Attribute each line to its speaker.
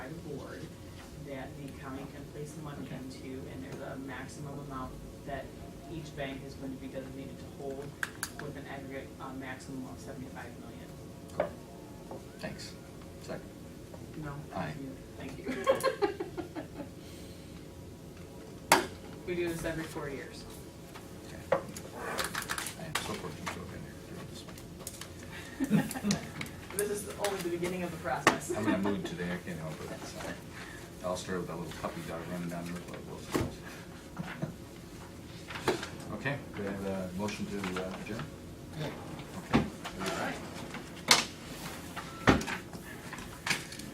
Speaker 1: place the money into, and there's a maximum amount that each bank is going to be designated to hold with an aggregate, uh, maximum of seventy-five million.
Speaker 2: Cool. Thanks. Second.
Speaker 1: No?
Speaker 2: Aye.
Speaker 1: you- Thank you. We do this every four years.
Speaker 2: Okay. I am so fortunate to have been here through this.
Speaker 1: This is only the beginning of the process.
Speaker 2: I'm in a mood today, I can't help it. so. I'll start with that little puppy dog running down your blood Okay, do I have a motion to uh, adjourn?